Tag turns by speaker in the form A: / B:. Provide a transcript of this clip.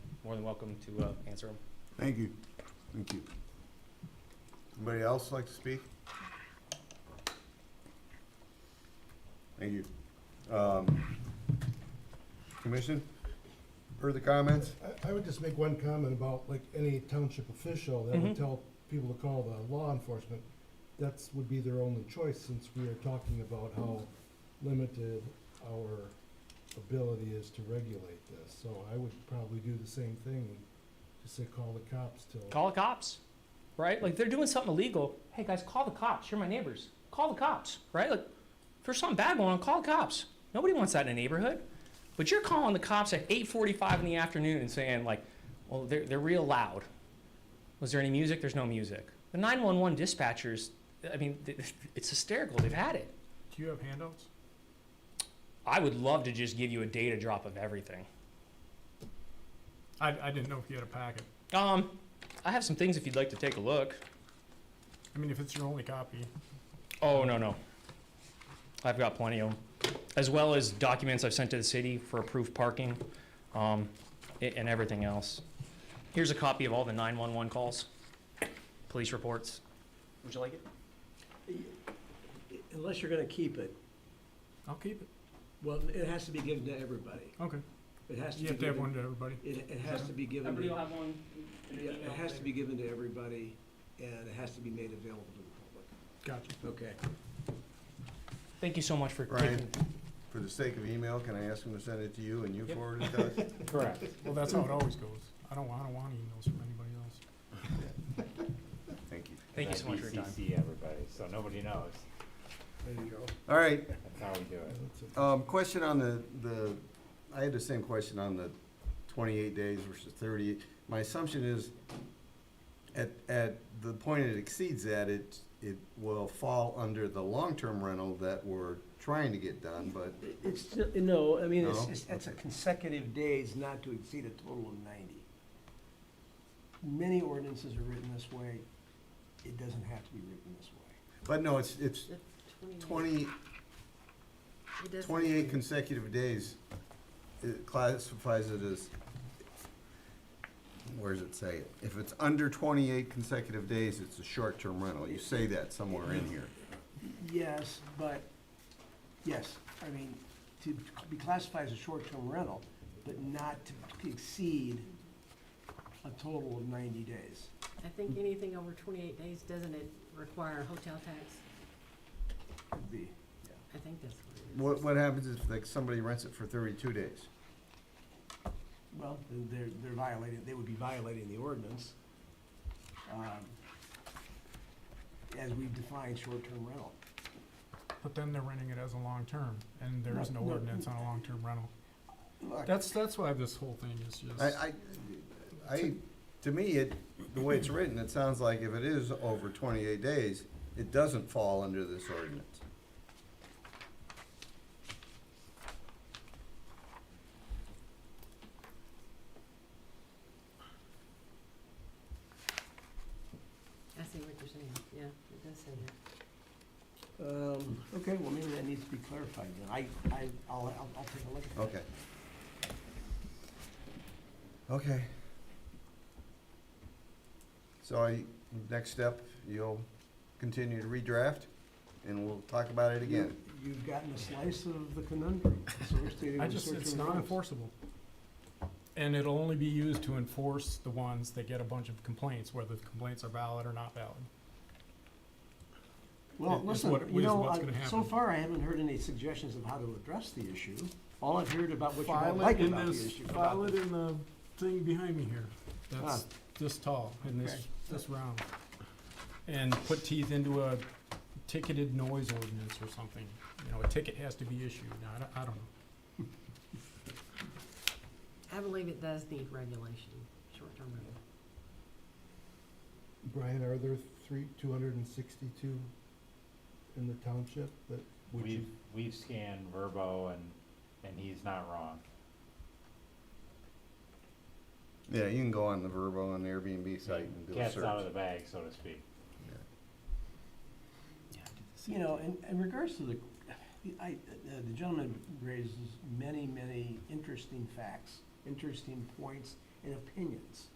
A: more than welcome to uh, answer them.
B: Thank you. Thank you. Anybody else like to speak? Thank you. Um, Commission, further comments?
C: I, I would just make one comment about like any township official that
A: Mhm.
C: would tell people to call the law enforcement. That's, would be their only choice since we are talking about how limited our ability is to regulate this. So I would probably do the same thing, just say call the cops till.
A: Call the cops, right? Like if they're doing something illegal. Hey guys, call the cops. You're my neighbors. Call the cops, right? Like if there's something bad going on, call the cops. Nobody wants that in a neighborhood. But you're calling the cops at 8:45 in the afternoon and saying like, well, they're they're real loud. Was there any music? There's no music. The 911 dispatchers, I mean, th- it's hysterical. They've had it.
D: Do you have handouts?
A: I would love to just give you a data drop of everything.
D: I, I didn't know if you had a packet.
A: Um, I have some things if you'd like to take a look.
D: I mean, if it's your only copy,
A: Oh, no, no. I've got plenty of them, as well as documents I've sent to the city for approved parking, um, a- and everything else. Here's a copy of all the 911 calls, police reports. Would you like it?
E: Unless you're gonna keep it,
D: I'll keep it.
E: well, it has to be given to everybody.
D: Okay.
E: It has to
D: You
E: be
D: have to have
E: given,
D: one to everybody.
E: it, it has to be given,
A: Everybody will
E: to-
A: have one.
E: yeah, it has to be given to everybody, and it has to be made available to
D: Gotcha.
E: the public. Okay.
A: Thank you so much for
B: Brian.
A: taking.
B: For the sake of email, can I ask him to send it to you and you
A: Yep.
B: forward it to us?
A: Correct.
D: Well, that's how it always goes. I don't, I don't want emails from anybody else.
B: Thank you.
A: Thank you so much for your time.
F: BCC everybody, so nobody knows.
C: There you go.
B: All right,
F: That's how we do it.
C: That's it.
B: um, question on the, the, I had the same question on the twenty-eight days versus thirty. My assumption is, at, at the point it exceeds that, it, it will fall under the long-term rental that we're trying to get done, but,
E: It's, still- no, I mean, it's,
B: No?
E: it's- it's a consecutive days not to exceed a total of ninety. Many ordinances are written this way. It doesn't have to be written this way.
B: but no, it's, it's twenty,
G: It doesn't-
B: twenty-eight consecutive days. It classifies it as, where does it say it? If it's under twenty-eight consecutive days, it's a short-term rental. You say that somewhere in here.
E: Yes, but, yes, I mean, to be classified as a short-term rental, but not to exceed a total of ninety days.
G: I think anything over twenty-eight days, doesn't it require a hotel tax?
E: would be-
G: I think that's what it is.
B: What, what happens if like somebody rents it for thirty-two days?
E: Well, then they're, they're violating, they would be violating the ordinance, um, as we define short-term rental.
D: But then they're renting it as a long-term, and there is no
E: No, no.
D: ordinance on a long-term rental.
E: Look,
D: That's, that's why this whole thing is just.
B: I, I, I, to me, it, the way it's written, it sounds like if it is over twenty-eight days, it doesn't fall under this ordinance.
G: I see what you're saying, yeah, it does say that.
E: um, okay, well, maybe that needs to be clarified then. I, I, I'll, I'll, I'll take a look at that.
B: Okay. Okay. So I, next step, you'll continue to redraft, and we'll talk about it again.
E: You- You've gotten a slice of the conundrum, so we're stating
D: I
E: the
D: just, it's
E: short-term
D: not
E: rentals.
D: enforceable. And it'll only be used to enforce the ones that get a bunch of complaints, whether the complaints are valid or not valid.
E: Well,
D: is
E: listen,
D: what-
E: you
D: is
E: know,
D: what's
E: I-
D: gonna
E: so
D: happen.
E: far I haven't heard any suggestions of how to address the issue. All I've heard about what you
D: File
E: don't
D: it
E: like
D: in
E: about the
D: this-
E: issue. about
D: File it
E: the-
D: in the thing behind me here, that's this tall and
E: Ah. Okay.
D: this, this round. And put teeth into a ticketed noise ordinance or something, you know, a ticket has to be issued, I don't, I don't know.
G: I believe it does need regulation, short-term rental.
C: Brian, are there three, two hundred and sixty-two in the township that would you?
F: We've, we've scanned Verbo and, and he's not wrong.
B: Yeah, you can go on the Verbo and Airbnb site and do a
F: Cat's out of
B: search.
F: the bag, so to speak.
E: You know, in, in regards to the, I, uh, the gentleman raises many, many interesting facts, interesting points, and opinions.